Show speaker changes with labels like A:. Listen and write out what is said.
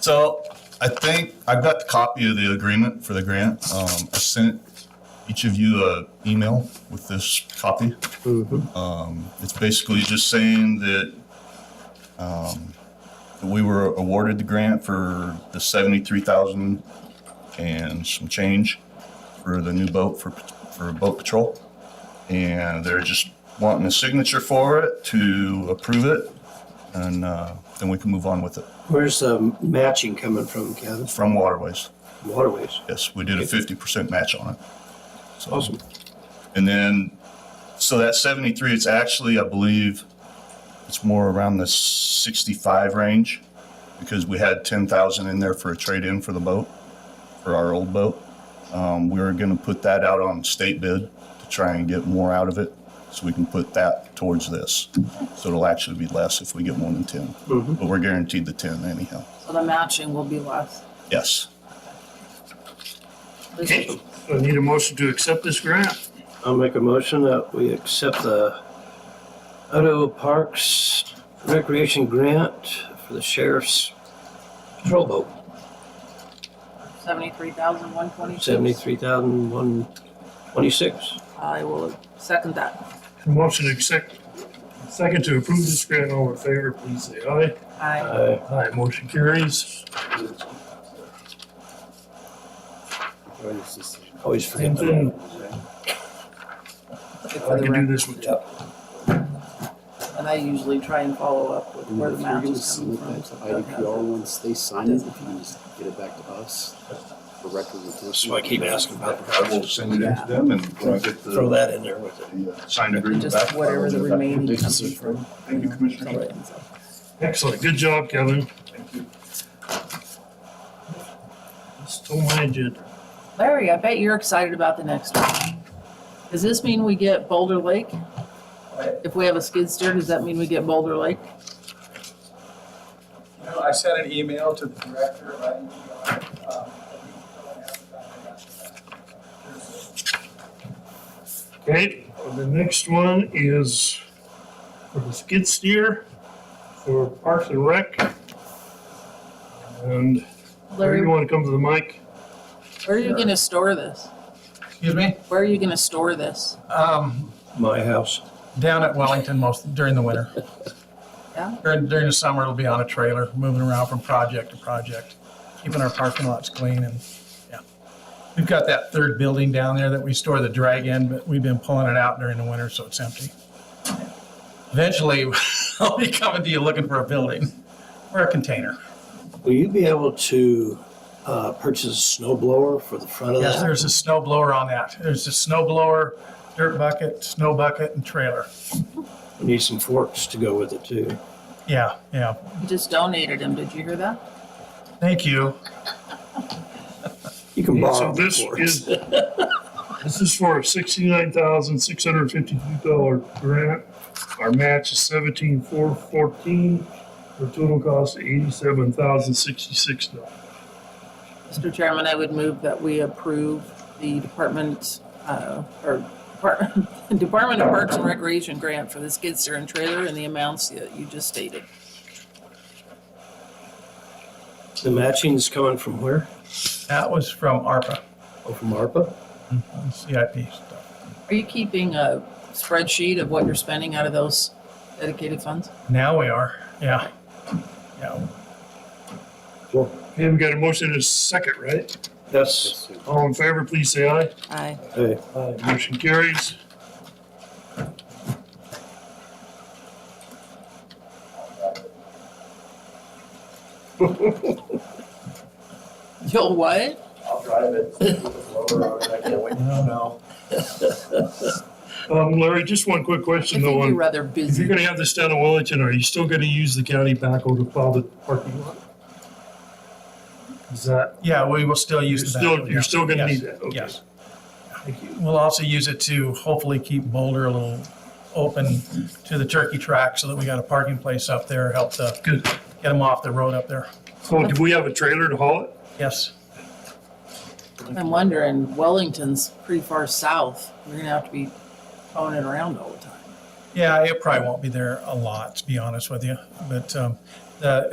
A: So I think I've got the copy of the agreement for the grant. Um, I sent each of you a email with this copy.
B: Mm-hmm.
A: Um, it's basically just saying that, um, that we were awarded the grant for the seventy-three thousand and some change for the new boat for, for boat patrol. And they're just wanting a signature for it to approve it. And, uh, then we can move on with it
B: Where's the matching coming from, Kevin?
A: from Waterways.
B: Waterways.
A: Yes, we did a fifty percent match on it. So-
B: Awesome.
A: And then, so that seventy-three, it's actually, I believe, it's more around the sixty-five range because we had ten thousand in there for a trade-in for the boat, for our old boat. Um, we were gonna put that out on state bid to try and get more out of it, so we can put that towards this. So it'll actually be less if we get more than ten,
B: Mm-hmm.
A: but we're guaranteed the ten anyhow.
C: So the matching will be less.
A: Yes.
D: I need a motion to accept this grant.
B: I'll make a motion that we accept the Odo Parks Recreation Grant for the sheriff's patrol boat,
C: Seventy-three thousand, one twenty-six.
B: seventy-three thousand one twenty-six.
C: I will second that.
D: Motion to accept, second to approve this grant. All in favor, please say aye.
C: I,
B: Aye.
D: Aye, motion carries.
B: Always forget.
D: And then I can do this one.
B: Yep.
C: and I usually try and follow up with
E: And
C: where the
E: if you're
C: match
E: gonna
C: is coming
E: submit
C: from.
E: that
C: so
E: to
C: Doug has
E: IDPR
C: it.
E: once they sign it, if you can just get it back to us for record retention.
B: So I keep asking about the
A: I will send it in to them and when I get the.
B: Throw that in there with it.
A: the, uh, signed agreement back.
C: Just whatever the
A: I'll get that.
C: remaining
E: Thank you,
C: comes
E: sir.
C: from.
A: Thank you, Commissioner.
D: Excellent, good job, Kevin.
A: Thank you.
D: Stole my agenda.
C: Larry, I bet you're excited about the next one. Does this mean we get Boulder Lake? If we have a skid steer, does that mean we get Boulder Lake?
F: You know, I sent an email to the director of IDPR. um,
D: Okay, the next one is for the skid steer for Parks and Rec. And
C: Larry,
D: Larry, you want to come to the mic?
C: where are you gonna store this?
F: Excuse me?
C: Where are you gonna store this?
F: Um,
B: My house.
F: Down at Wellington most, during the winter.
C: Yeah.
F: During, during the summer, it'll be on a trailer, moving around from project to project, keeping our parking lots clean and, yeah. We've got that third building down there that we store the drag in, but we've been pulling it out during the winter, so it's empty. Eventually, I'll be coming to you looking for a building or a container.
B: Will you be able to uh, purchase a snow blower for the front of
F: Yes,
B: that?
F: there's a snow blower on that. There's a snow blower, dirt bucket, snow bucket, and trailer.
B: We Need some forks to go with it too.
F: Yeah, yeah.
C: You just donated him, did you hear that?
F: Thank you.
B: You can
D: So
B: borrow the
D: this is,
B: forks.
D: this is for a sixty-nine thousand, six hundred and fifty-two dollar grant. Our match is seventeen, four, fourteen, for a total cost of eighty-seven thousand, sixty-six dollars.
C: Mr. Chairman, I would move that we approve the department, uh, or Depart- Department of Parks and Recreation grant for the skid steer and trailer and the amounts that you just stated.
B: The matching's coming from where?
F: That was from ARPA,
B: Oh, from ARPA?
F: on CIP stuff.
C: Are you keeping a spreadsheet of what you're spending out of those dedicated funds?
F: Now we are, yeah. Yeah,
D: Okay, we got a motion in a second, right?
B: Yes.
D: All in favor, please say aye.
C: Aye.
B: Hey,
D: Aye. Motion carries.
C: You'll what?
A: I'll drive it. I can't wait.
F: no, no.
D: Um, Larry, just one quick
C: I
D: question
C: think
D: though.
C: you're
D: on-
C: rather
D: If you're
C: busy.
D: gonna have this down in Wellington, are you still gonna use the county backhoe to plow the parking lot? Is that?
F: Yeah, we will still use
D: You're
F: the
D: still-
F: backhoe,
D: you're
F: yeah.
D: still gonna
F: Yes,
D: need that, okay.
F: Yes. We'll also use it to hopefully keep Boulder a little open to the turkey track so that we got a parking place up there, help to
D: Good.
F: get them off the road up there.
D: So do we have a trailer to haul it?
F: Yes,
C: I'm wondering, Wellington's pretty far south. You're gonna have to be phoning it around all the time.
F: yeah, it probably won't be there a lot, to be honest with you, but, um, the,